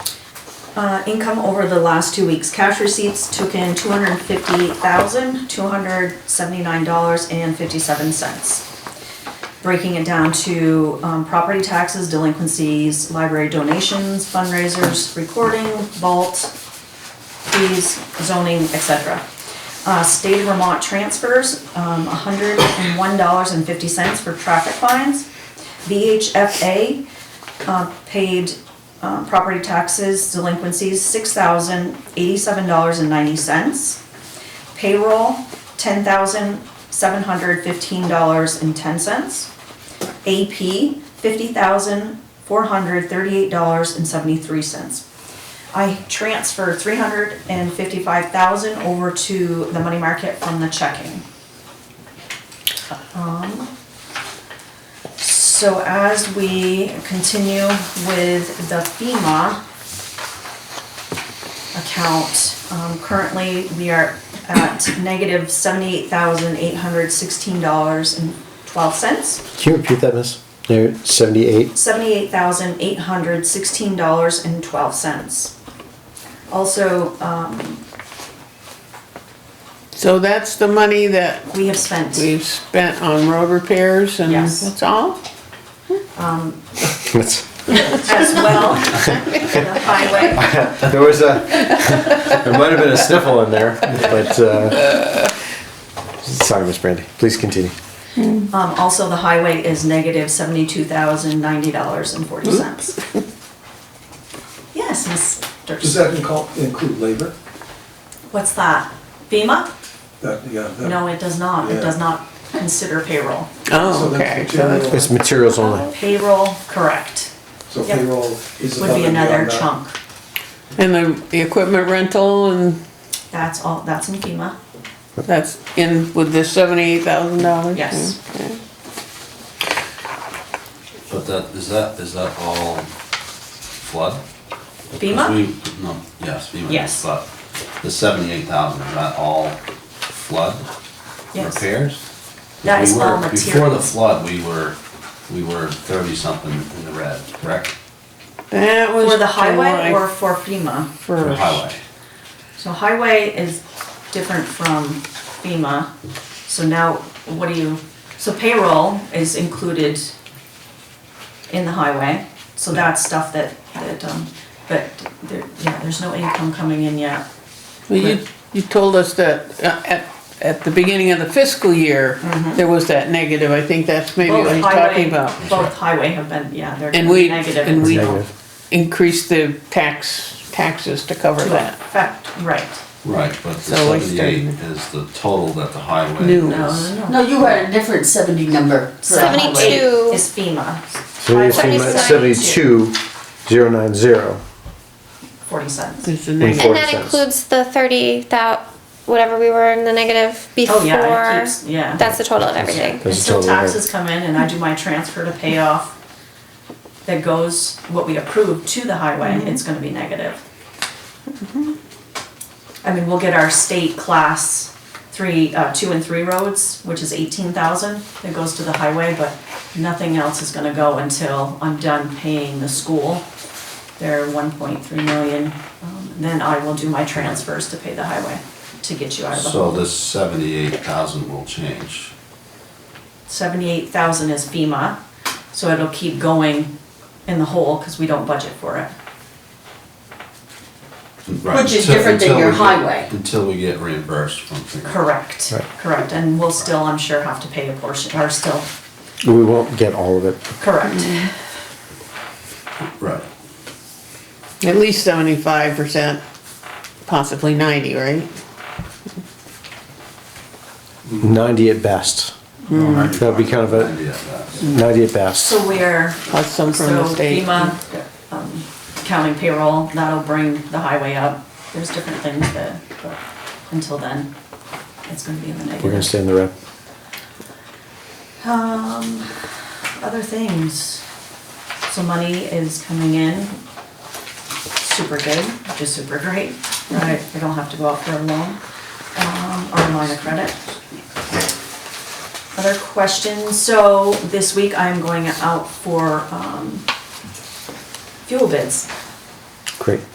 Uh, income over the last two weeks, cash receipts took in two hundred and fifty-eight thousand, two hundred seventy-nine dollars and fifty-seven cents. Breaking it down to, um, property taxes, delinquencies, library donations, fundraisers, recording, vault, fees, zoning, etc. Uh, state of Vermont transfers, um, hundred and one dollars and fifty cents for traffic fines. VHFA, uh, paid, uh, property taxes, delinquencies, six thousand eighty-seven dollars and ninety cents. Payroll, ten thousand seven hundred fifteen dollars and ten cents. AP, fifty thousand four hundred thirty-eight dollars and seventy-three cents. I transferred three hundred and fifty-five thousand over to the money market from the checking. Um, So as we continue with the FEMA account, um, currently we are at negative seventy-eight thousand eight hundred sixteen dollars and twelve cents. Can you repeat that, miss? There, seventy-eight. Seventy-eight thousand eight hundred sixteen dollars and twelve cents. Also, um, So that's the money that we have spent. we've spent on road repairs and Yes. that's all? That's- as well. The highway, There was a, there might have been a sniffle in there, but, uh, sorry, Miss Brandy, please continue. um, also the highway is negative seventy-two thousand ninety dollars and forty cents. Yes, Does Mr. that incul- include labor? What's that? FEMA? That, yeah. that- No, it does not. It does not consider payroll. So Oh, that's okay. the So that's- general- It's materials only. Payroll, correct, So Yep. payroll is would be above and beyond another that. chunk. And the, the equipment rental and That's all, that's in FEMA. that's in with the seventy-eight thousand dollars? Yes. But that, is that, is that all flood? 'Cause FEMA? we- No, yes, FEMA. is Yes. flood. The seventy-eight thousand, is that all flood Yes. repairs? That is We were- all Before the materials. flood, we were, we were thirty-something in the red, correct? That was. For the highway July or for FEMA? For the first. highway. So highway is different from FEMA, so now what do you, so payroll is included in the highway, so that's stuff that, that, um, but there, yeah, there's no income coming in yet. Well, you, you told us that uh, at, at the beginning of the fiscal year, there was that negative. I think that's maybe Both what he's Mm-hmm. highway- talking about. Both highway have been, yeah, they're And we- negative. and we- until- Negative. Increase the tax, taxes to cover To that. affect, right, Right, but the So we started- seventy-eight is the total that the highway New. no, is. no, no. No, you had a different seventy number. for the highway. 72. Is FEMA, So you're seeing that seventy-two, zero nine zero. forty cents. It's a And negative. And Forty that cents. includes the thirty thou, whatever we were in the negative before. Oh, yeah, it keeps, yeah. That's the total of everything. That's Until totally right. taxes come in and I do my transfer to pay off that goes, what we approved to the highway, it's gonna be negative. I mean, we'll get our state class three, uh, two and three roads, which is eighteen thousand, that goes to the highway, but nothing else is gonna go until I'm done paying the school. They're one point three million, um, then I will do my transfers to pay the highway, to get you out of the hole. So this seventy-eight thousand will change. seventy-eight thousand is FEMA, so it'll keep going in the hole, cause we don't budget for it. Right, Which is until- different than until your we get- highway. Until we get reimbursed from. FEMA. Correct, Right. correct, and we'll still, I'm sure, have to pay a portion, or still, We won't get all of it. correct, Right. At least seventy-five percent, possibly ninety, right? Ninety at best. That'd be kind of a- Idea of that. Ninety at best. so we're, Plus some from so the state. FEMA, um, counting payroll, that'll bring the highway up, there's different things that, but until then, it's gonna be in the negative. We're gonna stay in the rep. Um, other things. So money is coming in. Super good, which is super great, right? We don't have to go out for a loan, um, or a line of credit. Other questions? So this week I'm going out for, um, fuel bids. Great.